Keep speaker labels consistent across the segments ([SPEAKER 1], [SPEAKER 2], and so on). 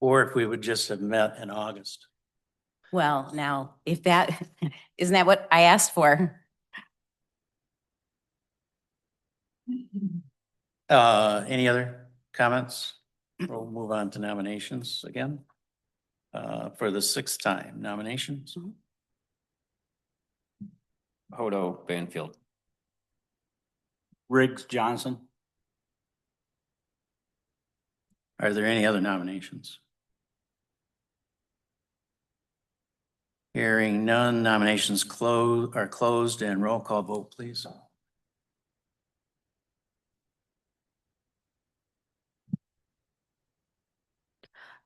[SPEAKER 1] or if we would just have met in August.
[SPEAKER 2] Well, now, if that, isn't that what I asked for?
[SPEAKER 1] Uh, any other comments? We'll move on to nominations again. Uh, for the sixth time nominations.
[SPEAKER 3] Hodo Banfield.
[SPEAKER 4] Riggs Johnson.
[SPEAKER 1] Are there any other nominations? Hearing none, nominations close, are closed and roll call vote, please.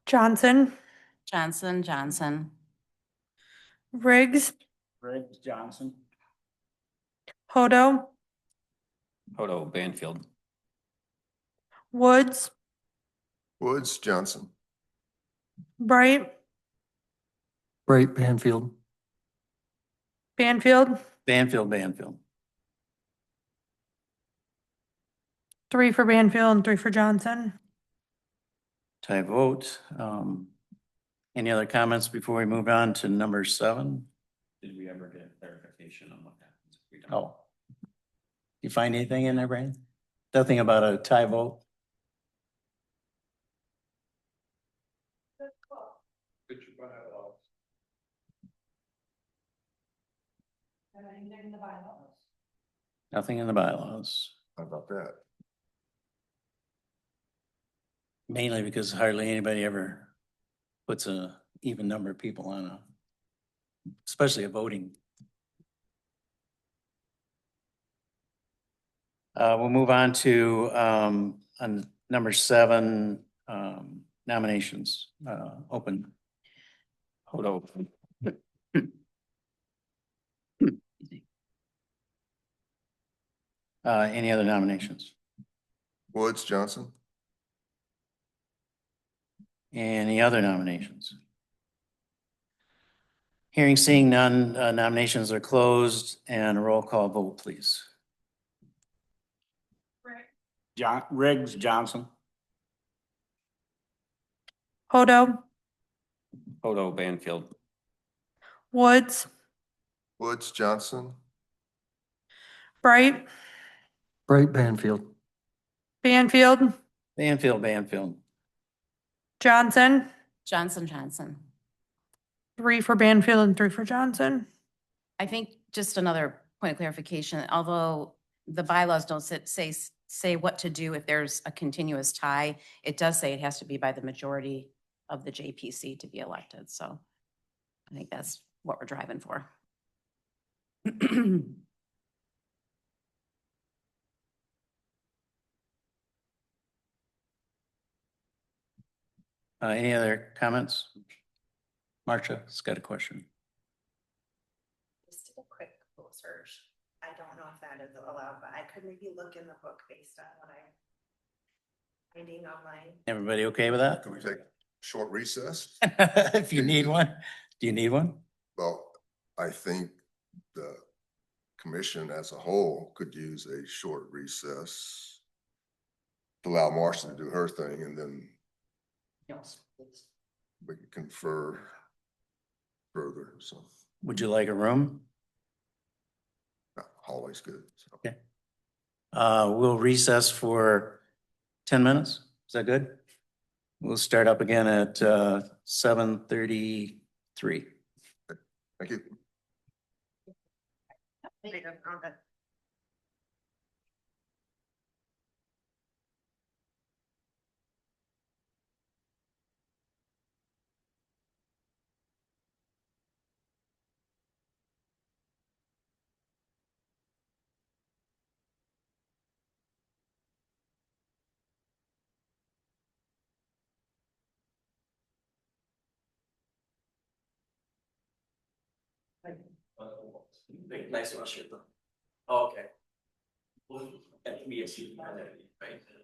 [SPEAKER 5] Johnson,
[SPEAKER 2] Johnson, Johnson,
[SPEAKER 5] Riggs,
[SPEAKER 4] Riggs Johnson.
[SPEAKER 5] Hodo,
[SPEAKER 3] Hodo Banfield.
[SPEAKER 5] Woods,
[SPEAKER 6] Woods Johnson.
[SPEAKER 5] Bright,
[SPEAKER 7] Bright Banfield.
[SPEAKER 5] Banfield,
[SPEAKER 1] Banfield, Banfield.
[SPEAKER 5] three for Banfield and three for Johnson.
[SPEAKER 1] Tie vote. Um, any other comments before we move on to number seven?
[SPEAKER 3] Did we ever get clarification on what happens if we
[SPEAKER 1] Oh. You find anything in there, Brian? Nothing about a tie vote? Nothing in the bylaws,
[SPEAKER 6] How about that?
[SPEAKER 1] mainly because hardly anybody ever puts a even number of people on a, especially a voting. Uh, we'll move on to, um, on number seven, um, nominations, uh, open.
[SPEAKER 3] Hodo.
[SPEAKER 1] Uh, any other nominations?
[SPEAKER 6] Woods Johnson.
[SPEAKER 1] Any other nominations? Hearing seeing none, uh, nominations are closed and a roll call vote, please.
[SPEAKER 4] John, Riggs Johnson.
[SPEAKER 5] Hodo,
[SPEAKER 3] Hodo Banfield.
[SPEAKER 5] Woods,
[SPEAKER 6] Woods Johnson.
[SPEAKER 5] Bright,
[SPEAKER 7] Bright Banfield.
[SPEAKER 5] Banfield,
[SPEAKER 1] Banfield, Banfield.
[SPEAKER 5] Johnson,
[SPEAKER 2] Johnson, Johnson.
[SPEAKER 5] three for Banfield and three for Johnson.
[SPEAKER 2] I think just another point of clarification, although the bylaws don't sit- say, s- say what to do if there's a continuous tie, it does say it has to be by the majority of the JPC to be elected, so I think that's what we're driving for.
[SPEAKER 1] Uh, any other comments? Marcia's got a question.
[SPEAKER 8] Just did a quick Google search. I don't know if that is allowed, but I could maybe look in the book based on what I'm finding online.
[SPEAKER 1] Everybody okay with that?
[SPEAKER 6] Can we take- Short recess.
[SPEAKER 1] If you need one, do you need one?
[SPEAKER 6] Well, I think the commission as a whole could use a short recess. to Allow Marcia to do her thing and then we can confer further. So
[SPEAKER 1] Would you like a room?
[SPEAKER 6] always good. so.
[SPEAKER 1] Uh, we'll recess for ten minutes. Is that good? We'll start up again at, uh, seven thirty-three.
[SPEAKER 6] Thank you.
[SPEAKER 8] I don't know that-
[SPEAKER 9] Nice to meet you. Okay. Well, At me, it's you, right?